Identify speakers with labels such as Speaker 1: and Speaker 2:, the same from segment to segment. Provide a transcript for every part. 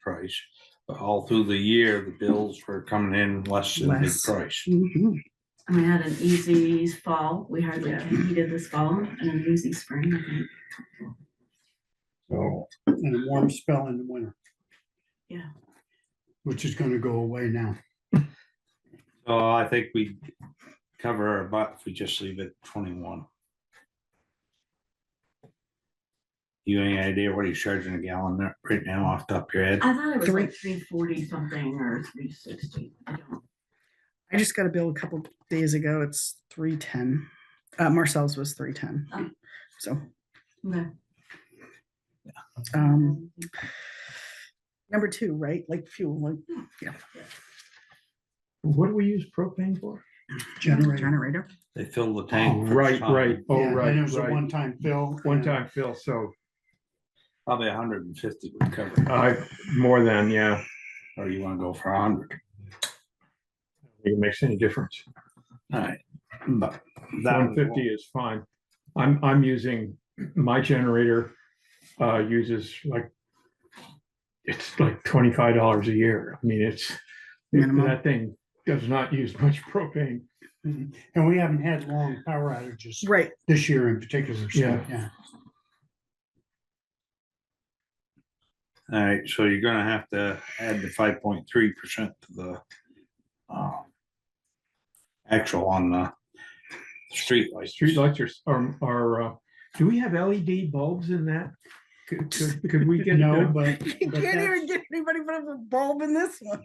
Speaker 1: price. But all through the year, the bills were coming in less than the
Speaker 2: Less.
Speaker 1: price.
Speaker 3: Mm-hmm.
Speaker 2: Mhm.
Speaker 4: And we had an easy fall. We hardly got heated this fall and an easy spring, I think.
Speaker 1: So
Speaker 3: and a warm spell in the winter.
Speaker 4: Yeah.
Speaker 3: Which is gonna go away now.
Speaker 1: so I think we cover our butt if we just leave it twenty-one. You any idea what he's charging a gallon there right now off the top of your head?
Speaker 4: I thought it was
Speaker 2: Three-
Speaker 4: like three forty something or three sixty. I don't,
Speaker 2: I just got a bill a couple days ago. It's three ten. Uh, Marcel's was three ten.
Speaker 4: Oh.
Speaker 2: So,
Speaker 4: okay.
Speaker 2: um, number two, right? Like fuel, like
Speaker 5: What do we use propane for?
Speaker 3: Generator.
Speaker 2: generator.
Speaker 1: They fill the tank. first
Speaker 5: Oh, Right,
Speaker 1: time.
Speaker 5: right, oh,
Speaker 3: Yeah, and
Speaker 5: right,
Speaker 3: It was a
Speaker 5: right.
Speaker 3: one-time bill.
Speaker 5: One
Speaker 3: and
Speaker 5: time fill, so uh,
Speaker 1: Probably hundred and fifty would cover, it.
Speaker 5: I, more than, yeah,
Speaker 1: or you wanna go for hundred,
Speaker 5: it makes any difference.
Speaker 1: alright, but. that
Speaker 5: One
Speaker 1: was one-
Speaker 5: fifty is fine. I'm, I'm using, my generator, uh, uses like. It's like twenty-five dollars a year. I mean, it's, it-
Speaker 2: Minimum.
Speaker 5: that thing does not use much propane.
Speaker 3: And we haven't had long power outages
Speaker 2: Right.
Speaker 3: this year in particular, so,
Speaker 5: Yeah.
Speaker 3: yeah.
Speaker 1: Alright, so you're gonna have to add the five point three percent to the. um, Actual on the. Street lights.
Speaker 5: Street lights are, are, are, uh, do we have LED bulbs in that? Could, could- could we get?
Speaker 3: No,
Speaker 5: the-
Speaker 3: but.
Speaker 2: You
Speaker 3: but
Speaker 2: can't
Speaker 3: that's-
Speaker 2: even get anybody but a bulb in this one.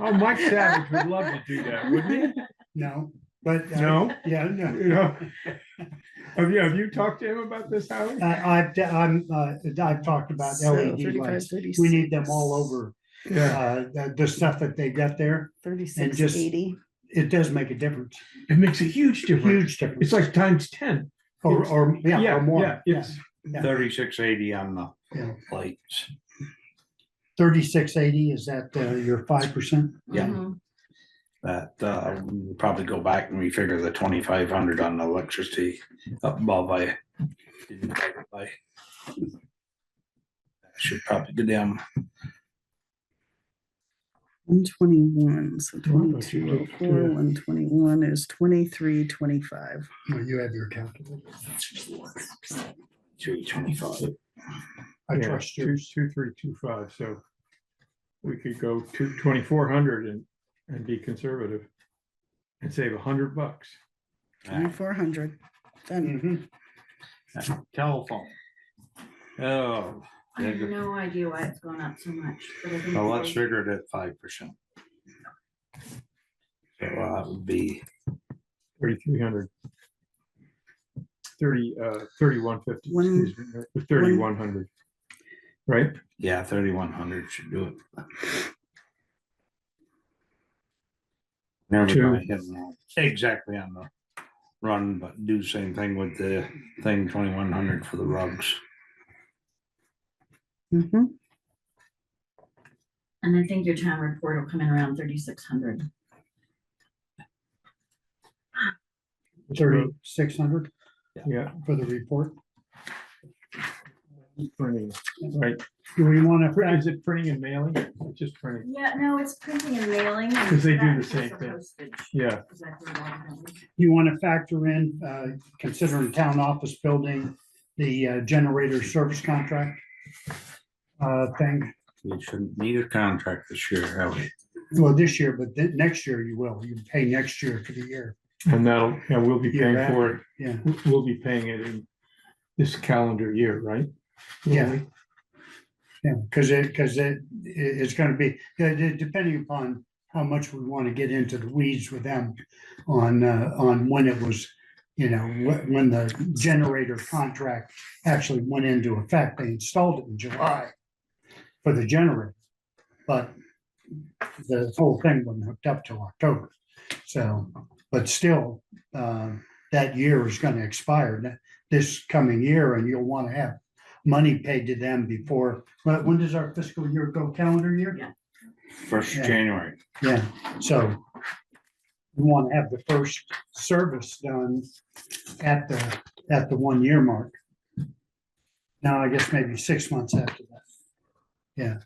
Speaker 5: Oh, Mike Savage would love to do that, wouldn't
Speaker 3: No, but.
Speaker 5: he?
Speaker 3: uh,
Speaker 5: No?
Speaker 3: Yeah, no.
Speaker 5: You know? Have you, have you talked to him about this, Howard?
Speaker 3: I, I've, I'm, uh, I've talked about
Speaker 2: So,
Speaker 3: LED
Speaker 2: 35,
Speaker 3: lights. We need them all
Speaker 2: 36,
Speaker 3: over,
Speaker 5: Yeah,
Speaker 3: uh, the, the stuff that they got there.
Speaker 2: Thirty-six,
Speaker 3: just-
Speaker 2: eighty.
Speaker 3: It does make a difference,
Speaker 5: it makes a huge difference.
Speaker 3: huge difference.
Speaker 5: It's like times ten.
Speaker 3: Or, or, yeah, or
Speaker 5: Yeah,
Speaker 3: more. yeah.
Speaker 5: it's,
Speaker 1: Thirty-six eighty on the
Speaker 3: Yeah.
Speaker 1: lights.
Speaker 3: Thirty-six eighty, is that, uh, your five percent?
Speaker 1: Yeah.
Speaker 4: Mhm.
Speaker 1: That, uh, we'll probably go back and refigure the twenty-five hundred on the electricity up above I. didn't take it by. Should probably go down.
Speaker 2: One twenty-one, so
Speaker 3: Well, that's
Speaker 2: twenty-two oh
Speaker 3: ridiculous.
Speaker 2: four, one twenty-one is twenty-three, twenty-five.
Speaker 3: No, you have your calculator.
Speaker 1: Two twenty-five.
Speaker 3: I
Speaker 5: Yeah,
Speaker 3: trust
Speaker 5: Two,
Speaker 3: you.
Speaker 5: two, three, two, five, so we could go to twenty-four hundred and, and be conservative and save a hundred bucks.
Speaker 2: Twenty-four hundred. Done.
Speaker 3: Mhm. Mm-hmm.
Speaker 1: Telephone. Oh,
Speaker 4: I have no idea why it's gone up so much. but I think
Speaker 1: well, let's
Speaker 4: it's-
Speaker 1: figure it at five percent. So uh, that would be
Speaker 5: Thirty-three hundred. Thirty, uh, thirty-one fifty,
Speaker 2: One-
Speaker 5: excuse me, thirty-one hundred. Right?
Speaker 1: Yeah, thirty-one hundred should do it.
Speaker 5: Two.
Speaker 1: Never mind. Exactly on the run, but do same thing with the thing twenty-one hundred for the rugs.
Speaker 2: Mhm.
Speaker 4: And I think your town report will come in around thirty-six hundred.
Speaker 3: Thirty-six hundred
Speaker 5: Yeah.
Speaker 3: for the report.
Speaker 5: Printing, right.
Speaker 3: Do we want
Speaker 5: Print-
Speaker 3: to, uh,
Speaker 5: Is it printing and mailing? It's Just printing.
Speaker 4: Yeah, no, it's printing and mailing. and
Speaker 5: 'Cause they do
Speaker 4: that
Speaker 5: the same
Speaker 4: plus
Speaker 5: thing.
Speaker 4: postage,
Speaker 5: Yeah,
Speaker 4: is that the one that we-
Speaker 3: you want to factor in, uh, considering town office building, the uh, generator service contract? Uh, thing,
Speaker 1: We shouldn't need a contract this year, have we?
Speaker 3: well, this year, but then next year you will, you pay next year for the year.
Speaker 5: and that'll, and we'll be
Speaker 3: Year
Speaker 5: paying for it,
Speaker 3: Yeah,
Speaker 5: we- we'll be paying it in this calendar year, right?
Speaker 3: Yeah. yeah, because it, because it, it- it's gonna be, de- de- depending upon how much we want to get into the weeds with them on, uh, on when it was, you know, wh- when the generator contract actually went into effect. They installed it in July for the generator. But the whole thing wasn't hooked up till October. So, but still, uh, that year is gonna expire th- this coming year and you'll want to have money paid to them before, but when does our fiscal year go, calendar year?
Speaker 1: First of
Speaker 3: Yeah.
Speaker 1: January.
Speaker 3: Yeah, so we want to have the first service done at the, at the one year mark. Now, I guess maybe six months after that. Yeah,